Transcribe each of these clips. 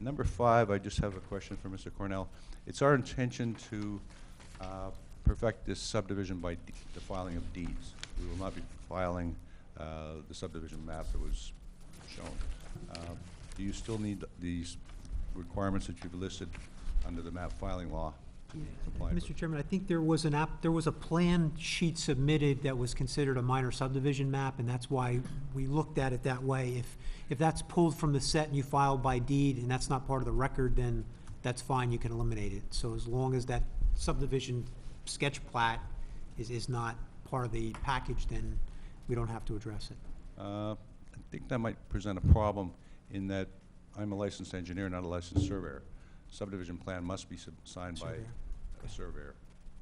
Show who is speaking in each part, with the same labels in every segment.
Speaker 1: Number five, I just have a question for Mr. Cornell. It's our intention to uh, perfect this subdivision by de- the filing of deeds. We will not be filing uh, the subdivision map that was shown. Uh, Do you still need these requirements that you've listed under the map filing law to be complied with?
Speaker 2: Mr. Chairman, I think there was an app, there was a plan sheet submitted that was considered a minor subdivision map, and that's why we looked at it that way. If, if that's pulled from the set and you file by deed, and that's not part of the record, then that's fine, you can eliminate it. So as long as that subdivision sketch plat is, is not part of the package, then we don't have to address it.
Speaker 1: Uh, I think that might present a problem in that I'm a licensed engineer, not a licensed surveyor. Subdivision plan must be sub- signed by
Speaker 2: Surveyor.
Speaker 1: a surveyor.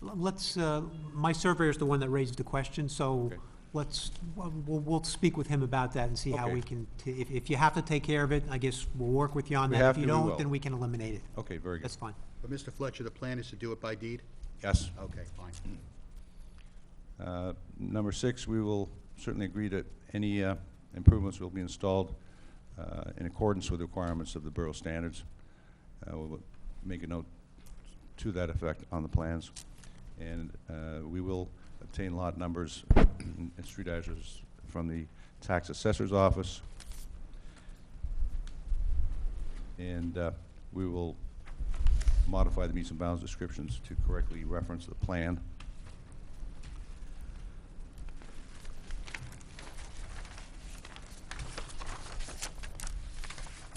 Speaker 2: L- Let's, uh, my surveyor's the one that raised the question, so
Speaker 1: Okay.
Speaker 2: let's, we'll, we'll speak with him about that and see how
Speaker 1: Okay.
Speaker 2: we can, t- if, if you have to take care of it, I guess we'll work with you on
Speaker 1: We
Speaker 2: that.
Speaker 1: have
Speaker 2: If you
Speaker 1: to, we
Speaker 2: don't,
Speaker 1: will.
Speaker 2: then we can eliminate it.
Speaker 1: Okay, very good.
Speaker 2: That's fine.
Speaker 3: But Mr. Fletcher, the plan is to do it by deed?
Speaker 1: Yes.
Speaker 3: Okay, fine.
Speaker 1: Uh, Number six, we will certainly agree that any uh, improvements will be installed uh, in accordance with the requirements of the borough standards. Uh, We'll make a note to that effect on the plans. And uh, we will obtain lot numbers and street addresses from the tax assessor's office. And uh, we will modify the meets and bounds descriptions to correctly reference the plan.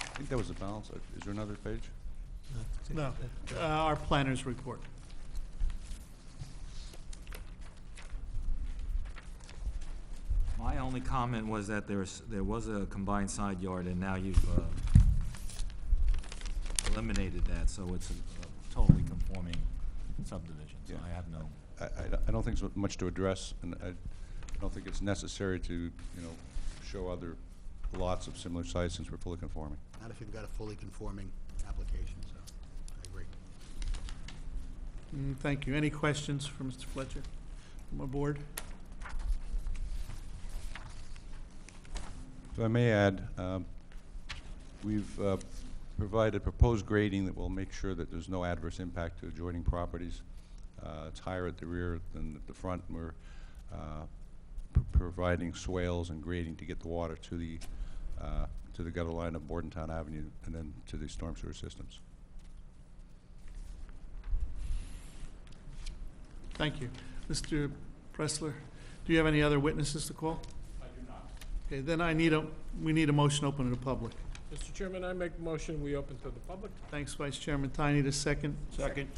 Speaker 1: I think that was the balance. Uh, Is there another page?
Speaker 4: No, uh, our planners report.
Speaker 5: My only comment was that there's, there was a combined side yard, and now you've uh, eliminated that, so it's a a totally conforming subdivision, so
Speaker 1: Yeah.
Speaker 5: I have no,
Speaker 1: I, I don't- I don't think so much to address, and I don't think it's necessary to, you know, show other lots of similar size since we're fully conforming.
Speaker 3: Not if you've got a fully conforming application, so, I agree.
Speaker 4: Mm, Thank you. Any questions for Mr. Fletcher from our board?
Speaker 1: If I may add, um, we've uh, provided proposed grading that will make sure that there's no adverse impact to adjoining properties. Uh, It's higher at the rear than at the front, and we're uh, p- providing swales and grading to get the water to the, uh, to the gutter line of Bordentown Avenue and then to the storm sewer systems.
Speaker 4: Thank you. Mr. Pressler, do you have any other witnesses to call? I do not. Okay, then I need a, we need a motion open to the public.
Speaker 6: Mr. Chairman, I make motion, we open to the public.
Speaker 4: Thanks, Vice Chairman Tiny, to second.
Speaker 6: Second.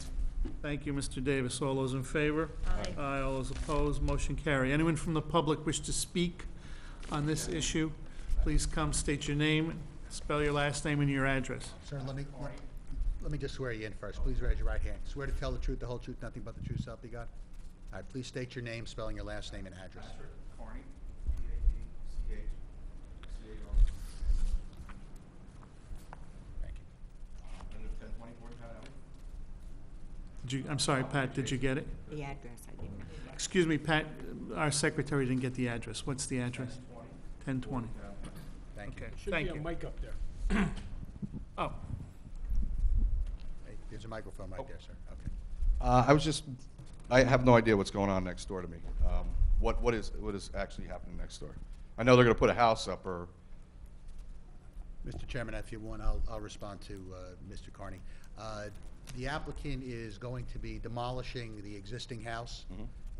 Speaker 4: Thank you, Mr. Davis. All those in favor?
Speaker 7: Aye.
Speaker 4: Aye, all those opposed, motion carry. Anyone from the public wish to speak on this issue? Please come, state your name, spell your last name and your address.
Speaker 3: Sir, let me, let- let me just swear you in first. Please raise your right hand. Swear to tell the truth, the whole truth, nothing but the truth, so help you God? All right, please state your name, spelling your last name and address.
Speaker 8: Carney, C-A-D-C-H-C-A-R.
Speaker 3: Thank you.
Speaker 8: I live ten twenty-four Town Avenue.
Speaker 4: Did you, I'm sorry, Pat, did you get it?
Speaker 7: The address, I didn't know.
Speaker 4: Excuse me, Pat, our secretary didn't get the address. What's the address? Ten twenty.
Speaker 3: Thank you.
Speaker 4: Okay,
Speaker 6: Should be
Speaker 4: thank
Speaker 6: a
Speaker 4: you.
Speaker 6: mic up there.
Speaker 4: Oh,
Speaker 3: Hey, There's a microphone right there, sir. Okay.
Speaker 8: Uh, I was just, I have no idea what's going on next door to me. Um, What, what is, what is actually happening next door? I know they're gonna put a house up or,
Speaker 3: Mr. Chairman, if you want, I'll, I'll respond to uh, Mr. Carney. Uh, The applicant is going to be demolishing the existing house,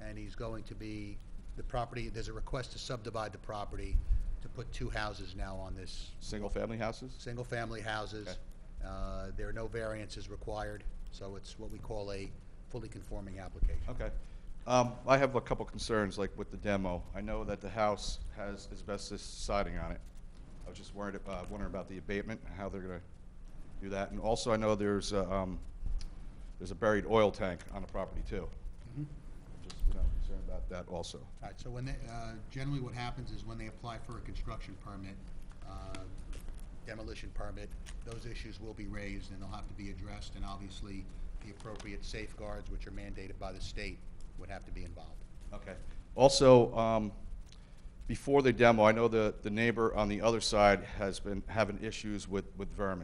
Speaker 3: and he's going to be, the property, there's a request to subdivide the property to put two houses now on this,
Speaker 8: single-family houses?
Speaker 3: single-family houses.
Speaker 8: Okay.
Speaker 3: Uh, There are no variances required, so it's what we call a fully conforming application.
Speaker 8: Okay. Um, I have a couple concerns, like with the demo. I know that the house has asbestos siding on it. I was just worried, uh, wondering about the abatement, and how they're gonna do that. And also, I know there's, a, um, there's a buried oil tank on the property too. Just, you know, concerned about that also.
Speaker 3: All right, so when they, uh, generally what happens is when they apply for a construction permit, uh, demolition permit, those issues will be raised and they'll have to be addressed, and obviously, the appropriate safeguards, which are mandated by the state, would have to be involved.
Speaker 8: Okay. Also, um, before the demo, I know the, the neighbor on the other side has been having issues with, with vermin.